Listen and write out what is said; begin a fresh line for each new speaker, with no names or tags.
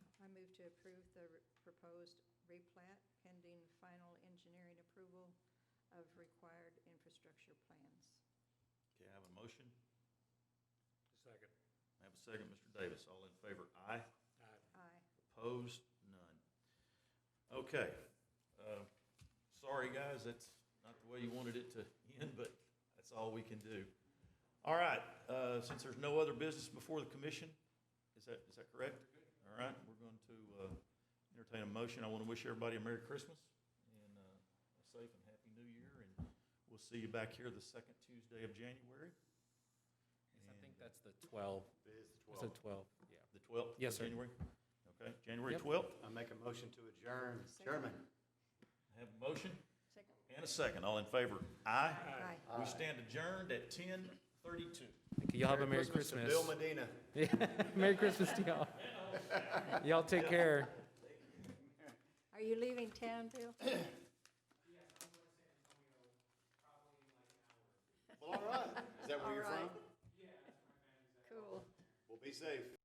to approve the re- proposed replat pending final engineering approval of required infrastructure plans.
Okay, I have a motion.
Second.
I have a second, Mr. Davis. All in favor, aye.
Aye.
Aye.
Opposed? None. Okay. Uh, Sorry, guys, that's not the way you wanted it to end, but that's all we can do. All right, uh, since there's no other business before the commission, is that, is that correct? All right, we're going to uh, entertain a motion. I want to wish everybody a Merry Christmas and uh, a safe and happy New Year, and we'll see you back here the second Tuesday of January.
I think
And- uh,
that's the 12.
It is
It's
the
the
12th.
12, yeah.
The 12th?
Yes,
of
sir.
January? Okay, January
Yep.
12th.
I make a motion to adjourn. Chairman?
I Have a motion
Second?
and a second. All in favor? Aye.
Aye.
uh,
We stand adjourned at 10:32.
Thank you. Y'all have a Merry
to
Christmas.
Bill Medina.
Merry Christmas to y'all. Y'all take care.
Are you leaving town, Bill?
Yes, I'm going to San Antonio, probably in like an hour.
Well, all right. Is that where
All
you're
right.
from?
Yeah, that's my family's at.
Cool.
Well, be safe.